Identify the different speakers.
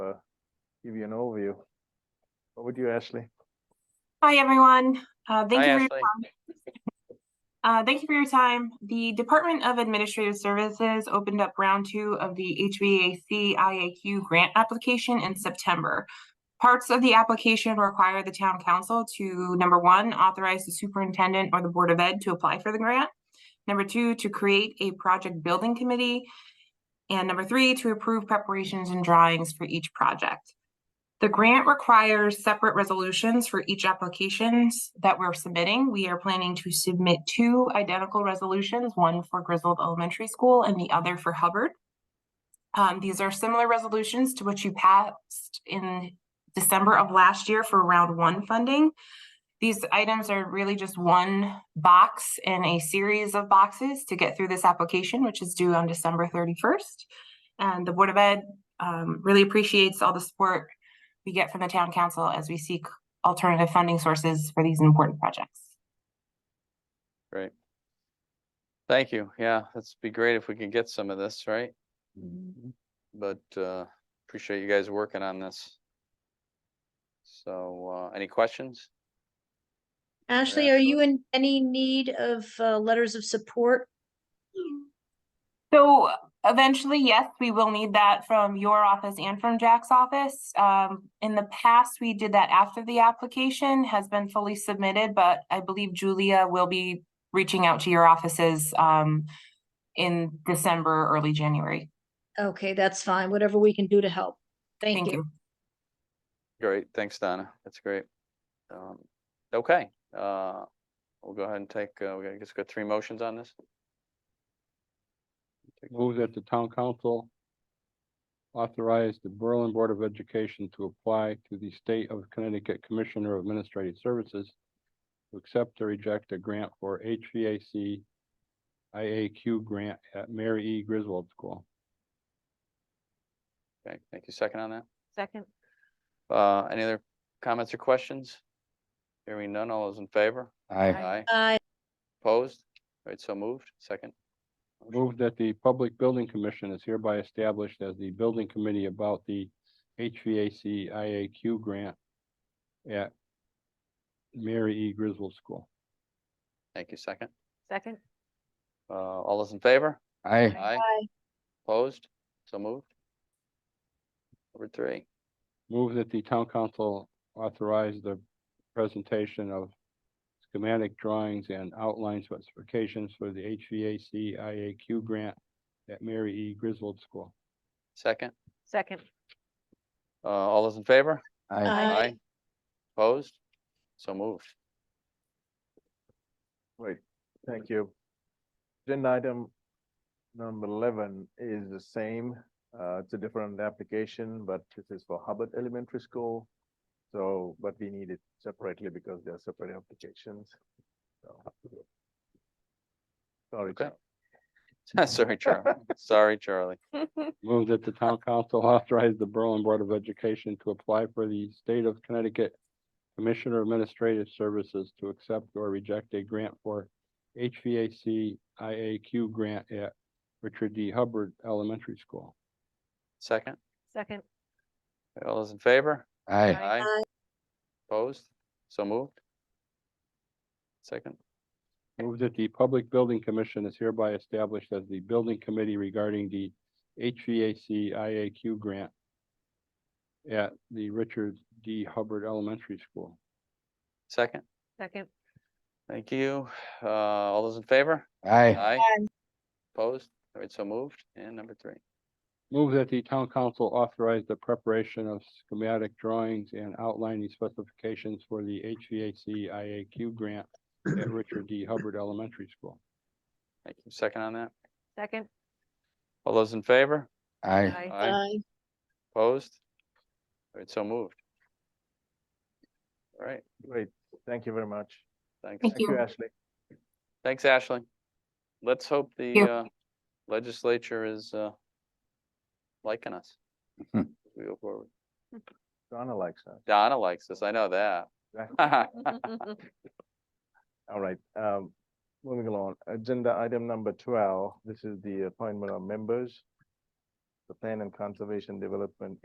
Speaker 1: give you an overview. What would you, Ashley?
Speaker 2: Hi, everyone. Uh, Thank
Speaker 3: Hi,
Speaker 2: you for your
Speaker 3: Ashley.
Speaker 2: Uh, thank you for your time. The Department of Administrative Services opened up round two of the HVAC IAQ grant application in September. Parts of the application require the town council to, number one, authorize the superintendent or the Board of Ed to apply for the grant. Number two, to create a project building committee. And number three, to approve preparations and drawings for each project. The grant requires separate resolutions for each applications that we're submitting. We are planning to submit two identical resolutions, one for Griswold Elementary School and the other for Hubbard. Um, these are similar resolutions to what you passed in December of last year for round one funding. These items are really just one box in a series of boxes to get through this application, which is due on December thirty-first. And the Board of Ed, um, really appreciates all the support we get from the town council as we seek alternative funding sources for these important projects.
Speaker 3: Great. Thank you. Yeah, that'd be great if we could get some of this, right? But uh, appreciate you guys working on this. So uh, any questions?
Speaker 4: Ashley, are you in any need of uh, letters of support?
Speaker 2: So eventually, yes, we will need that from your office and from Jack's office. Um, in the past, we did that after the application has been fully submitted, but I believe Julia will be reaching out to your offices, um, in December, early January.
Speaker 4: Okay, that's fine. Whatever we can do to help. Thank you.
Speaker 3: Great, thanks, Donna. That's great. Um, Okay, uh, we'll go ahead and take, uh, we gotta just got three motions on this.
Speaker 5: Move that the town council authorize the Berlin Board of Education to apply to the State of Connecticut Commissioner of Administrative Services to accept or reject a grant for HVAC IAQ grant at Mary E. Griswold School.
Speaker 3: Okay, thank you. Second on that.
Speaker 6: Second,
Speaker 3: Uh, any other comments or questions? Hearing none, all those in favor?
Speaker 6: Aye.
Speaker 3: Aye,
Speaker 4: Aye.
Speaker 3: opposed? Right, so moved. Second,
Speaker 5: Move that the Public Building Commission is hereby established as the building committee about the HVAC IAQ grant at Mary E. Griswold School.
Speaker 3: thank you. Second,
Speaker 6: second,
Speaker 3: uh, all those in favor?
Speaker 5: Aye.
Speaker 3: Aye,
Speaker 4: Aye.
Speaker 3: opposed? So moved. Number three,
Speaker 5: Move that the town council authorize the presentation of schematic drawings and outline specifications for the HVAC IAQ grant at Mary E. Griswold School.
Speaker 3: second,
Speaker 6: second,
Speaker 3: uh, all those in favor?
Speaker 4: Aye.
Speaker 3: Opposed? So moved.
Speaker 1: Great, thank you. Agenda item number eleven is the same. Uh, it's a different application, but this is for Hubbard Elementary School. So, but we need it separately because they are separate applications. So. Sorry,
Speaker 3: Okay.
Speaker 1: Charlie.
Speaker 3: Sorry, Charlie. Sorry, Charlie.
Speaker 5: Move that the town council authorize the Berlin Board of Education to apply for the State of Connecticut Commissioner of Administrative Services to accept or reject a grant for HVAC IAQ grant at Richard D. Hubbard Elementary School.
Speaker 3: Second,
Speaker 6: second,
Speaker 3: all those in favor?
Speaker 5: Aye.
Speaker 6: Aye.
Speaker 4: Aye.
Speaker 3: Opposed? So moved. Second,
Speaker 5: Move that the Public Building Commission is hereby established as the building committee regarding the HVAC IAQ grant at the Richard D. Hubbard Elementary School.
Speaker 3: second,
Speaker 6: second,
Speaker 3: thank you. Uh, all those in favor?
Speaker 5: Aye.
Speaker 3: Aye. Opposed? All right, so moved. And number three,
Speaker 5: Move that the town council authorize the preparation of schematic drawings and outlining specifications for the HVAC IAQ grant at Richard D. Hubbard Elementary School.
Speaker 3: thank you. Second on that.
Speaker 6: second.
Speaker 3: All those in favor?
Speaker 6: Aye.
Speaker 4: Aye.
Speaker 3: Opposed? All right, so moved. All right,
Speaker 1: Great, thank you very much.
Speaker 3: thanks.
Speaker 1: Thank
Speaker 2: Thank
Speaker 1: you,
Speaker 2: you.
Speaker 1: Ashley.
Speaker 3: Thanks, Ashley. Let's hope the
Speaker 2: you.
Speaker 3: uh, legislature is uh, liking us. as We go forward.
Speaker 1: Donna likes that.
Speaker 3: Donna likes us, I know that.
Speaker 1: All right, um, moving along, agenda item number twelve, this is the appointment of members. The Plan and Conservation Development